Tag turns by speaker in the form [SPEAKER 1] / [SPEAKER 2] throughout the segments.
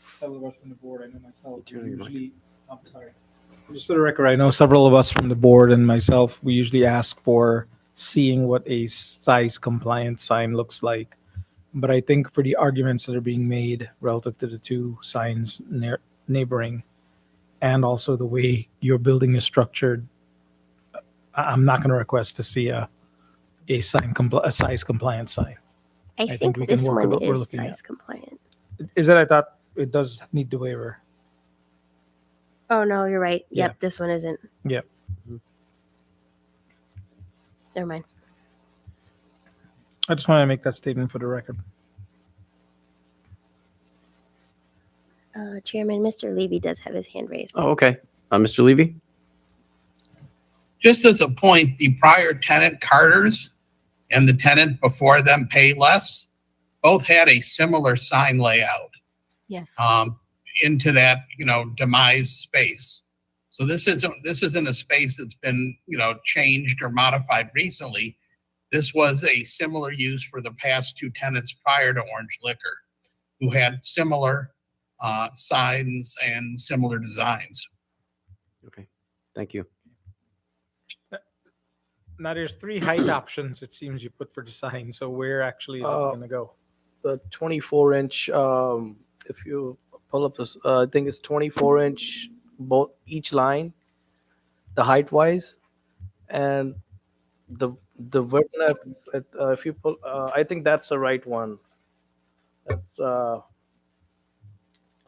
[SPEAKER 1] several of us from the board, I know myself, we
[SPEAKER 2] Turn on your mic.
[SPEAKER 1] usually, I'm sorry. Just for the record, I know several of us from the board and myself, we usually ask for seeing what a size compliant sign looks like. But I think for the arguments that are being made relative to the two signs near neighboring and also the way your building is structured, I, I'm not going to request to see a, a sign, compli- a size compliant sign.
[SPEAKER 3] I
[SPEAKER 1] think
[SPEAKER 3] think
[SPEAKER 1] we can
[SPEAKER 3] this
[SPEAKER 1] work with
[SPEAKER 3] one
[SPEAKER 1] what we're
[SPEAKER 3] is
[SPEAKER 1] looking at.
[SPEAKER 3] size compliant.
[SPEAKER 1] Is that I thought it does need the waiver.
[SPEAKER 3] Oh, no, you're right.
[SPEAKER 1] Yeah.
[SPEAKER 3] Yep, this one isn't. Mm-hmm.
[SPEAKER 1] Yep.
[SPEAKER 2] Mhm.
[SPEAKER 3] Never mind.
[SPEAKER 1] I just want to make that statement for the record.
[SPEAKER 3] Uh, Chairman, Mr. Levy does have his hand raised.
[SPEAKER 2] Oh, okay. Uh, Mr. Levy?
[SPEAKER 4] Just as a point, the prior tenant Carter's and the tenant before them Payless both had a similar sign layout
[SPEAKER 5] Yes.
[SPEAKER 4] um, into that, you know, demise space. So this isn't, this isn't a space that's been, you know, changed or modified recently. This was a similar use for the past two tenants prior to Orange Liquor, who had similar uh, signs and similar designs.
[SPEAKER 2] Okay. Thank you.
[SPEAKER 1] Now there's three height options it seems you put for the sign. So where actually is
[SPEAKER 6] Uh,
[SPEAKER 1] it gonna go?
[SPEAKER 6] the 24 inch um if you pull up this uh, i think it's 24 inch both each line the height wise and the the width and depth, it, uh, if you pull uh, i think that's the right one that's uh
[SPEAKER 1] So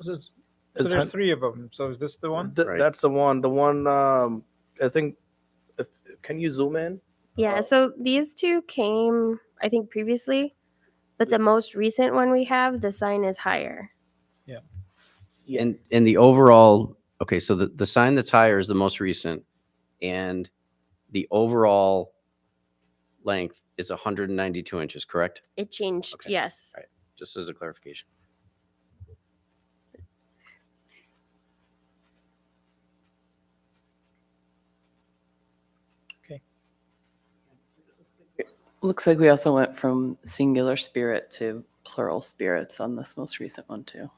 [SPEAKER 1] it's- so
[SPEAKER 6] it's
[SPEAKER 1] there's
[SPEAKER 6] hun-
[SPEAKER 1] three of them. So is this the one?
[SPEAKER 6] th-
[SPEAKER 2] Right.
[SPEAKER 6] that's the one the one um i think if, can you zoom in
[SPEAKER 3] Yeah,
[SPEAKER 6] Uh,
[SPEAKER 3] so these two came, I think, previously, but the most recent one we have, the sign is higher.
[SPEAKER 2] And and the overall okay, so the, the sign that's higher is the most recent, and the overall length is 192 inches, correct?
[SPEAKER 3] It changed,
[SPEAKER 2] Okay.
[SPEAKER 3] yes.
[SPEAKER 2] Just as a clarification.
[SPEAKER 5] Looks like we also went from singular spirit to plural spirits on this most recent one, too.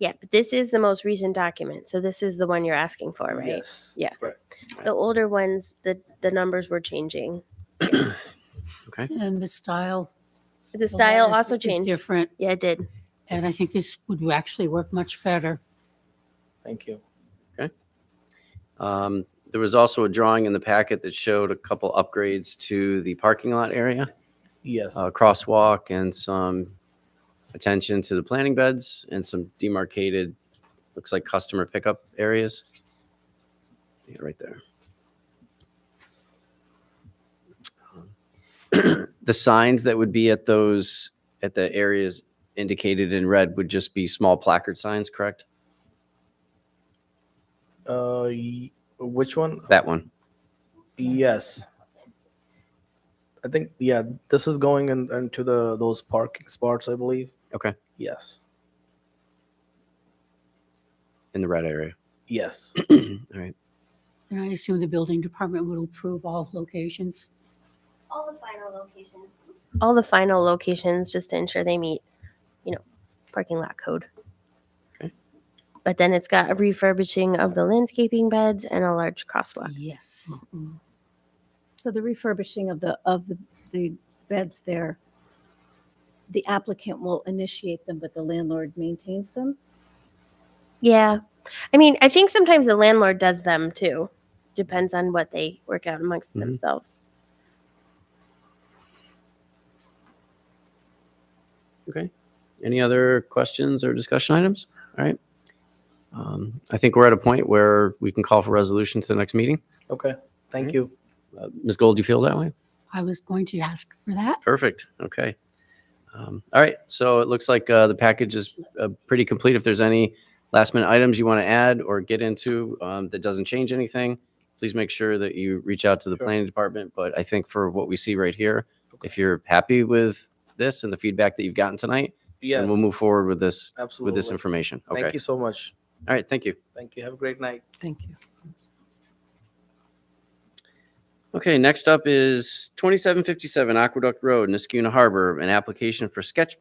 [SPEAKER 3] Yeah, but this is the most recent document, so this is the one you're asking for, right?
[SPEAKER 6] yes
[SPEAKER 3] Yeah.
[SPEAKER 6] right.
[SPEAKER 3] The older ones, the, the numbers were changing.
[SPEAKER 2] Okay.
[SPEAKER 7] And the style.
[SPEAKER 3] The style
[SPEAKER 7] letters
[SPEAKER 3] also
[SPEAKER 7] is
[SPEAKER 3] changed.
[SPEAKER 7] Different,
[SPEAKER 3] Yeah, it did.
[SPEAKER 7] and I think this would actually work much better.
[SPEAKER 6] thank you
[SPEAKER 2] Um, there was also a drawing in the packet that showed a couple upgrades to the parking lot area.
[SPEAKER 6] yes
[SPEAKER 2] a uh, crosswalk and some attention to the planting beds and some demarcated, looks like customer pickup areas. Yeah, right there. The signs that would be at those, at the areas indicated in red would just be small placard signs, correct?
[SPEAKER 6] uh y- which one
[SPEAKER 2] That one.
[SPEAKER 6] Yes. I think yeah, this is going in, into the those parking spots, I believe.
[SPEAKER 2] Okay.
[SPEAKER 6] Yes.
[SPEAKER 2] In the red area.
[SPEAKER 6] Yes.
[SPEAKER 2] All right.
[SPEAKER 7] And I assume the building department will approve all locations.
[SPEAKER 3] All the final locations. All the final locations, just to ensure they meet, you know, parking lot code.
[SPEAKER 2] Okay.
[SPEAKER 3] But then it's got a refurbishing of the landscaping beds and a large crosswalk.
[SPEAKER 7] Yes.
[SPEAKER 8] So the refurbishing of the, of the, the beds there, the applicant will initiate them, but the landlord maintains them?
[SPEAKER 3] Yeah. I mean, I think sometimes the landlord does them too. Depends on what they work out amongst
[SPEAKER 2] Mhm.
[SPEAKER 3] themselves.
[SPEAKER 2] Okay. Any other questions or discussion items? All right. Um, I think we're at a point where we can call for resolution to the next meeting.
[SPEAKER 6] Okay. Thank
[SPEAKER 2] Alright.
[SPEAKER 6] you.
[SPEAKER 2] Uh, Ms. Gold, do you feel that way?
[SPEAKER 7] I was going to ask for that.
[SPEAKER 2] Perfect. Okay. Um, all right. So it looks like uh, the package is uh, pretty complete. If there's any last minute items you want to add or get into um, that doesn't change anything, please make sure that you reach out to the
[SPEAKER 6] Sure.
[SPEAKER 2] planning department. But I think for what we see right here, if you're happy with this and the feedback that you've gotten tonight,
[SPEAKER 6] Yes.
[SPEAKER 2] then we'll move forward with this
[SPEAKER 6] absolutely.
[SPEAKER 2] with this information. Okay.
[SPEAKER 6] Thank you so much.
[SPEAKER 2] All right. Thank you.
[SPEAKER 6] Thank you. Have a great night.
[SPEAKER 7] Thank you.
[SPEAKER 2] Okay, next up is 2757 Aqueduct Road, Niskuna Harbor, an application for sketch